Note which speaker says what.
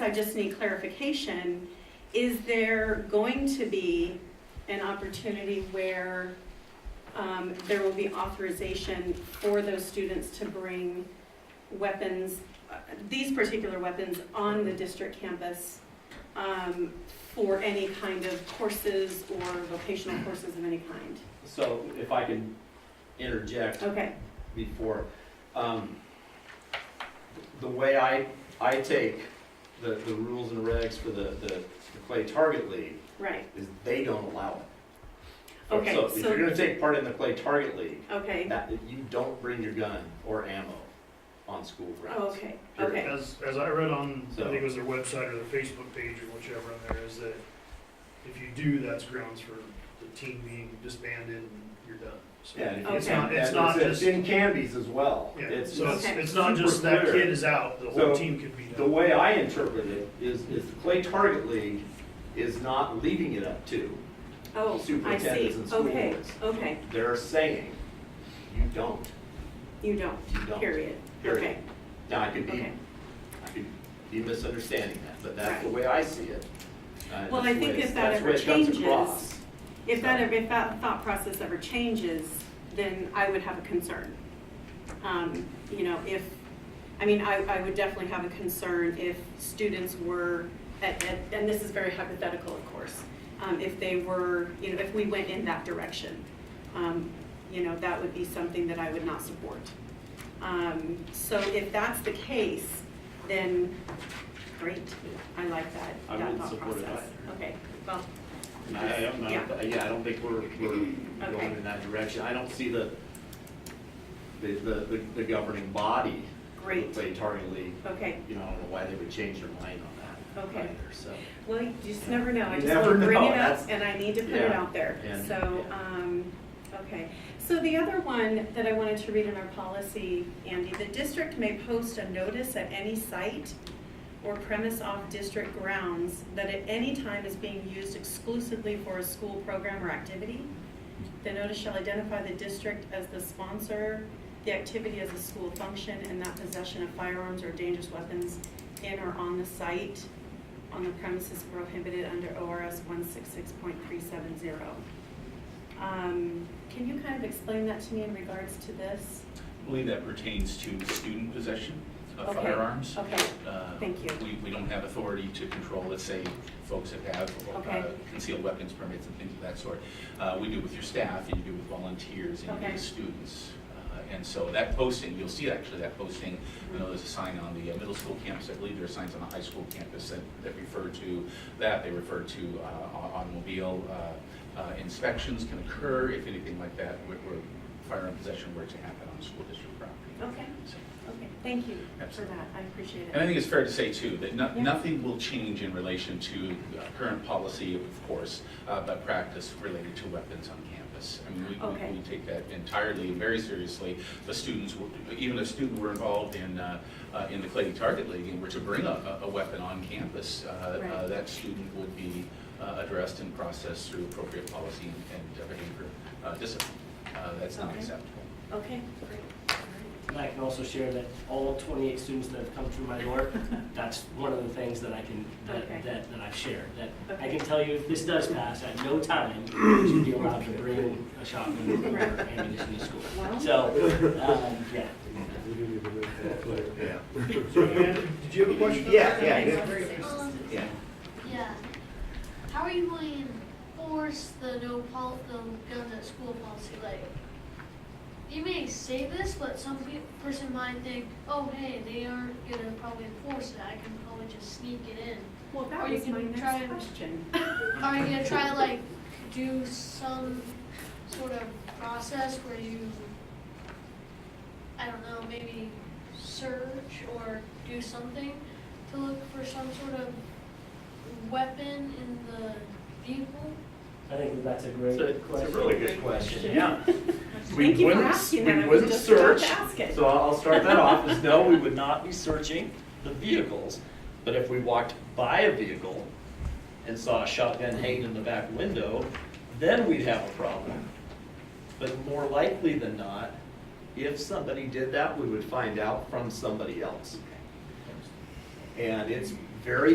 Speaker 1: I just need clarification. Is there going to be an opportunity where um, there will be authorization for those students to bring weapons, uh, these particular weapons, on the district campus um, for any kind of courses or vocational courses of any kind?
Speaker 2: So if I can interject
Speaker 1: Okay,
Speaker 2: before, um, the way I, I take the, the rules and regs for the, the the Clay Target League
Speaker 1: right,
Speaker 2: is they don't allow it.
Speaker 1: Okay,
Speaker 2: So if
Speaker 1: so-
Speaker 2: you're gonna take part in the Clay Target League,
Speaker 1: okay.
Speaker 2: that, you don't bring your gun or ammo on school
Speaker 1: Oh,
Speaker 2: grounds.
Speaker 1: okay,
Speaker 2: Sure.
Speaker 1: okay,
Speaker 3: As, as I read on, I
Speaker 2: So-
Speaker 3: think it was their website or their Facebook page or whichever on there, is that if you do, that's grounds for the team being disbanded and you're done. So
Speaker 2: Yeah, and
Speaker 3: It's
Speaker 1: Okay.
Speaker 3: not, it's not
Speaker 2: and
Speaker 3: just, yeah,
Speaker 2: In Cambies as well. It's-
Speaker 3: so it's,
Speaker 1: Okay.
Speaker 3: it's not just
Speaker 2: super
Speaker 3: that
Speaker 2: clear.
Speaker 3: kid is out, the
Speaker 2: So,
Speaker 3: whole team could be
Speaker 2: The
Speaker 3: done.
Speaker 2: way I interpret it is, is the Clay Target League is not leaving it up to,
Speaker 1: oh, I see,
Speaker 2: Superintendents and school
Speaker 1: okay,
Speaker 2: boards.
Speaker 1: okay,
Speaker 2: they're saying, you don't,
Speaker 1: you don't,
Speaker 2: you don't.
Speaker 1: period,
Speaker 2: Period.
Speaker 1: okay,
Speaker 2: Now, I could be,
Speaker 1: okay.
Speaker 2: I could be misunderstanding that, but that's the way I see it. Uh,
Speaker 1: Well, I
Speaker 2: that's the
Speaker 1: think
Speaker 2: way-
Speaker 1: if that
Speaker 2: that's the
Speaker 1: ever
Speaker 2: way it comes
Speaker 1: changes,
Speaker 2: across.
Speaker 1: If that, if that thought process ever changes, then I would have a concern. Um, You know, if, I mean, I, I would definitely have a concern if students were, at- at- and this is very hypothetical, of course, um, if they were, you know, if we went in that direction, um, you know, that would be something that I would not support. Um, So if that's the case, then great, I like that,
Speaker 2: I
Speaker 1: that
Speaker 2: wouldn't
Speaker 1: thought
Speaker 2: support it
Speaker 1: process.
Speaker 2: either.
Speaker 1: Okay, well,
Speaker 2: And I, I don't, know- yeah, I don't think we're, we're
Speaker 1: Okay.
Speaker 2: going in that direction. I don't see the, the, the, the governing body. of the
Speaker 1: Great.
Speaker 2: Clay Target League,
Speaker 1: okay.
Speaker 2: you know, I don't know why they would change their mind on that
Speaker 1: Okay.
Speaker 2: either, so.
Speaker 1: Well, you just never know. I
Speaker 2: You
Speaker 1: just want
Speaker 2: never
Speaker 1: to bring
Speaker 2: know.
Speaker 1: it up
Speaker 2: That's-
Speaker 1: and I need to put it
Speaker 2: Yeah.
Speaker 1: out there.
Speaker 2: And-
Speaker 1: So,
Speaker 2: yeah.
Speaker 1: um, okay. So the other one that I wanted to read in our policy, Andy, the district may post a notice at any site or premise off district grounds that at any time is being used exclusively for a school program or activity. The notice shall identify the district as the sponsor, the activity as a school function, and that possession of firearms or dangerous weapons in or on the site, on the premises prohibited under ORS one six six point three seven zero. Um, can you kind of explain that to me in regards to this?
Speaker 4: I believe that pertains to student possession of
Speaker 1: Okay.
Speaker 4: firearms.
Speaker 1: Okay,
Speaker 4: Uh,
Speaker 1: Thank you.
Speaker 4: We, we don't have authority to control, let's say, folks that have uh,
Speaker 1: Okay.
Speaker 4: concealed weapons permits and things of that sort. Uh, We do with your staff, and you do with volunteers, and you
Speaker 1: Okay.
Speaker 4: do with students. Uh, And so that posting, you'll see actually that posting, you know, there's a sign on the uh, middle school campus, I believe there are signs on the high school campus that, that refer to that, they refer to uh, au- automobile uh, uh, inspections can occur if anything like that, where where firearm possession were to happen on school district property.
Speaker 1: okay,
Speaker 4: So-
Speaker 1: okay, thank you for
Speaker 4: Absolutely.
Speaker 1: that, I appreciate
Speaker 4: and I
Speaker 1: it.
Speaker 4: think it's fair to say too, that no-
Speaker 1: Yeah.
Speaker 4: nothing will change in relation to uh, current policy, of course, uh, but practice related to weapons on campus. I mean, we-
Speaker 1: Okay.
Speaker 4: we, we take that entirely and very seriously. The students, were- even if students were involved in, uh, uh, in the Clay Target League and were to bring a, a a weapon on campus, uh,
Speaker 1: Right.
Speaker 4: uh, that student would be uh, addressed and processed through appropriate policy and- and behavior uh, discipline. Uh, That's not
Speaker 1: Okay.
Speaker 4: acceptable.
Speaker 1: Okay, great.
Speaker 5: And I can also share that all 28 students that have come through my door, that's one of the things that I can, that,
Speaker 1: Okay.
Speaker 5: that, that I've shared. That I
Speaker 1: Okay.
Speaker 5: can tell you, if this does pass, at no time should be allowed to bring a shotgun or
Speaker 1: Right.
Speaker 5: ammunition to
Speaker 1: Wow.
Speaker 5: school. So, um, yeah.
Speaker 6: Yeah,
Speaker 3: So Amanda, did you have a question?
Speaker 6: yeah, yeah.
Speaker 7: Um,
Speaker 6: yeah.
Speaker 7: yeah. How are you going to enforce the no pol, the guns at school policy? Like, you may say this, but some pe- person might think, oh, hey, they aren't gonna probably enforce it. I can probably just sneak it in.
Speaker 1: Well,
Speaker 7: Or
Speaker 1: that
Speaker 7: you
Speaker 1: was
Speaker 7: can
Speaker 1: my
Speaker 7: try
Speaker 1: next
Speaker 7: and-
Speaker 1: question.
Speaker 7: Are you gonna try like do some sort of process where you, I don't know, maybe search or do something to look for some sort of weapon in the vehicle?
Speaker 5: I think that that's a great
Speaker 2: It's a-
Speaker 5: question.
Speaker 2: it's a really good question, yeah.
Speaker 1: Thank you for asking that, I was just about to ask it.
Speaker 2: So I'll start that off, is no, we would not be searching the vehicles, but if we walked by a vehicle and saw a shotgun hanging in the back window, then we'd have a problem. But more likely than not, if somebody did that, we would find out from somebody else. And it's very